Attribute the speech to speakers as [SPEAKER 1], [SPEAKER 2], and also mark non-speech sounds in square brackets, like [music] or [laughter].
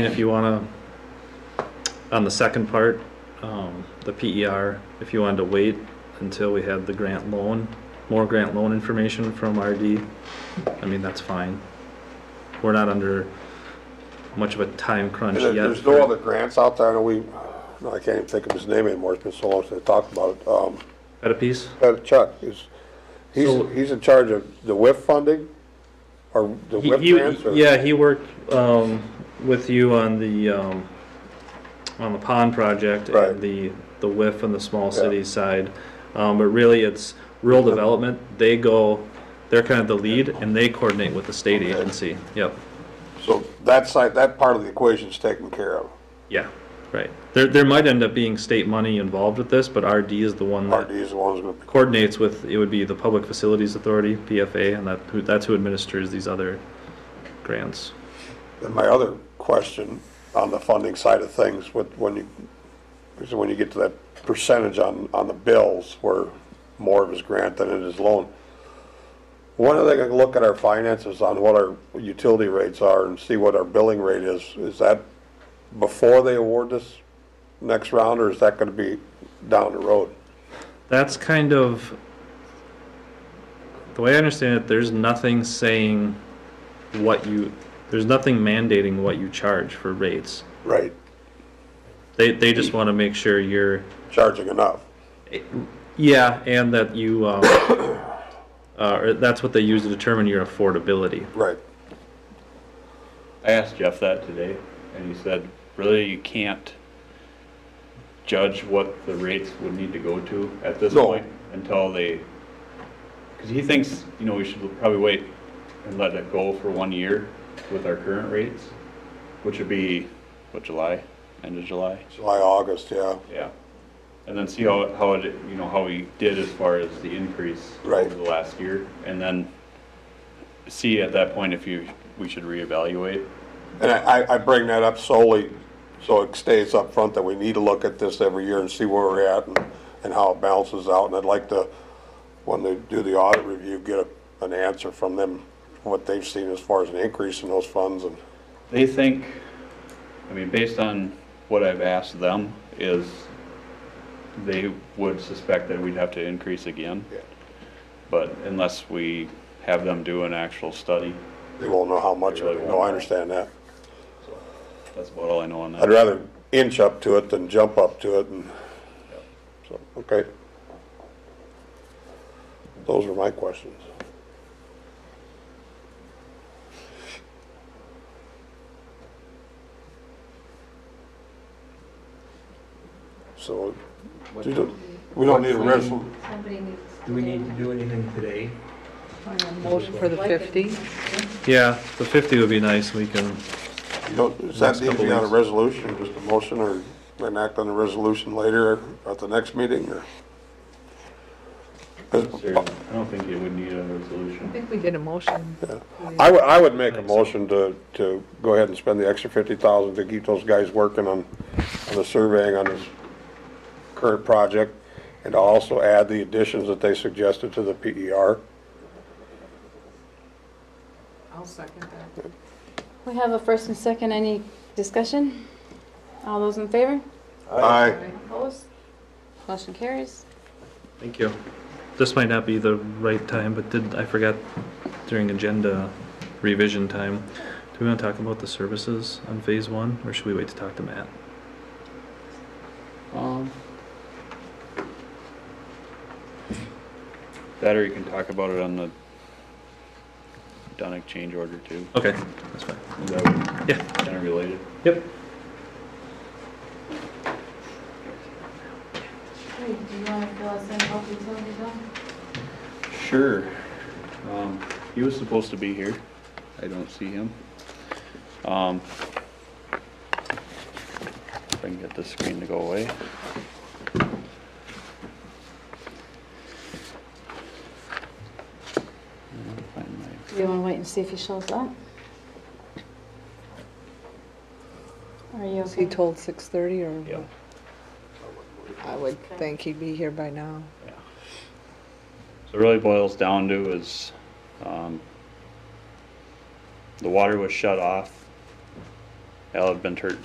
[SPEAKER 1] And if you wanna, on the second part, um, the PER, if you wanted to wait until we had the grant loan, more grant loan information from RD, I mean, that's fine. We're not under much of a time crunch
[SPEAKER 2] And there-
[SPEAKER 1] yet.
[SPEAKER 2] There's no other grants out there, I know we, no, I can't even think of his name anymore, it's been so long since I talked about it. Um,
[SPEAKER 1] At a piece?
[SPEAKER 2] that Chuck is, he's,
[SPEAKER 1] So-
[SPEAKER 2] he's in charge of the WIF funding, or the
[SPEAKER 1] He-
[SPEAKER 2] WIF
[SPEAKER 1] he-
[SPEAKER 2] grants, or?
[SPEAKER 1] Yeah, he worked, um, with you on the, um, on the pond project. and
[SPEAKER 2] Right.
[SPEAKER 1] The, the WIF and the small
[SPEAKER 2] Yeah.
[SPEAKER 1] city side. Um, but really it's rural development. They go, they're kind of the lead and they coordinate with the state
[SPEAKER 2] Okay.
[SPEAKER 1] agency. Yep,
[SPEAKER 2] So that side, that part of the equation's taken care of,
[SPEAKER 1] yeah, right. There, there might end up being state money involved with this, but RD is the one
[SPEAKER 2] RD
[SPEAKER 1] that
[SPEAKER 2] is the one who's gonna,
[SPEAKER 1] coordinates with, it would be the Public Facilities Authority, PFA, and that, who, that's who administers these other grants.
[SPEAKER 2] and my other question on the funding side of things, with, when you, is when you get to that percentage on, on the bills, where more of is grant than it is loan, when are they gonna look at our finances on what our utility rates are and see what our billing rate is? Is that before they award this next round, or is that gonna be down the road?
[SPEAKER 1] That's kind of, the way I understand it, there's nothing saying what you, there's nothing mandating what you charge for rates.
[SPEAKER 2] Right.
[SPEAKER 1] They, they just want to make sure you're,
[SPEAKER 2] Charging enough.
[SPEAKER 1] yeah, and that you, um, [coughs] uh, or that's what they use to determine your affordability.
[SPEAKER 2] Right.
[SPEAKER 3] I asked Jeff that today, and he said, really, you can't judge what the rates would need to go to at this
[SPEAKER 2] No.
[SPEAKER 3] point until they, because he thinks, you know, we should probably wait and let it go for one year with our current rates, which would be, what, July, end of July?
[SPEAKER 2] July, August, yeah.
[SPEAKER 3] Yeah. And then see how, how it, you know, how we did as far as the increase
[SPEAKER 2] Right.
[SPEAKER 3] over the last year, and then see at that point if you, we should reevaluate.
[SPEAKER 2] And I, I- I bring that up solely so it stays up front that we need to look at this every year and see where we're at and, and how it balances out. And I'd like to, when they do the audit review, get a, an answer from them, what they've seen as far as an increase in those funds and,
[SPEAKER 3] They think, I mean, based on what I've asked them, is they would suspect that we'd have to increase again, but unless we have them do an actual study,
[SPEAKER 2] they won't know how much of
[SPEAKER 3] They really
[SPEAKER 2] it. No, I
[SPEAKER 3] won't.
[SPEAKER 2] understand that.
[SPEAKER 3] that's about all I know on
[SPEAKER 2] I'd
[SPEAKER 3] that.
[SPEAKER 2] rather inch up to it than jump up to it and, so, okay. Those were my questions. So,
[SPEAKER 4] What
[SPEAKER 2] do
[SPEAKER 4] do
[SPEAKER 2] the- we don't need a resol,
[SPEAKER 5] Somebody needs to.
[SPEAKER 4] do we need to do anything today?
[SPEAKER 6] Motion for the 50?
[SPEAKER 1] Yeah, the fifty would be nice, we can,
[SPEAKER 2] you don't, does that
[SPEAKER 1] Next
[SPEAKER 2] need to be
[SPEAKER 1] couple
[SPEAKER 2] on a
[SPEAKER 1] weeks.
[SPEAKER 2] resolution, just a motion or enact on the resolution later at the next meeting or? 'Cause
[SPEAKER 3] Seriously, I don't think it would need a resolution.
[SPEAKER 6] I think we did a motion.
[SPEAKER 2] I would, I would make a motion to, to go ahead and spend the extra fifty thousand to keep those guys working on, on the surveying on this current project, and also add the additions that they suggested to the E PER.
[SPEAKER 6] I'll second that.
[SPEAKER 5] We have a first and second, any discussion? All those in favor?
[SPEAKER 2] Aye.
[SPEAKER 5] Opposed? Motion carries.
[SPEAKER 1] thank you. This might not be the right time, but did, I forgot during agenda revision time. Do we want to talk about the services on phase one, or should we wait to talk to Matt?
[SPEAKER 3] Um, That or you can talk about it on the Donick change order too.
[SPEAKER 1] Okay, that's fine.
[SPEAKER 3] Is that
[SPEAKER 1] Yeah.
[SPEAKER 3] kind of related?
[SPEAKER 1] Yep.
[SPEAKER 5] Hey, do you want to fill us in about the utility bill?
[SPEAKER 3] Sure. Um, he was supposed to be here. I don't see him. Um, if I can get this screen to go away. Find my
[SPEAKER 5] Do you want to wait and see if he shows up? Are you
[SPEAKER 6] Was he
[SPEAKER 5] okay?
[SPEAKER 6] told 6:30 or?
[SPEAKER 3] Yeah.
[SPEAKER 6] I would think he'd be here by now.
[SPEAKER 3] Yeah. So it really boils down to is, um, the water was shut off Al had been tur-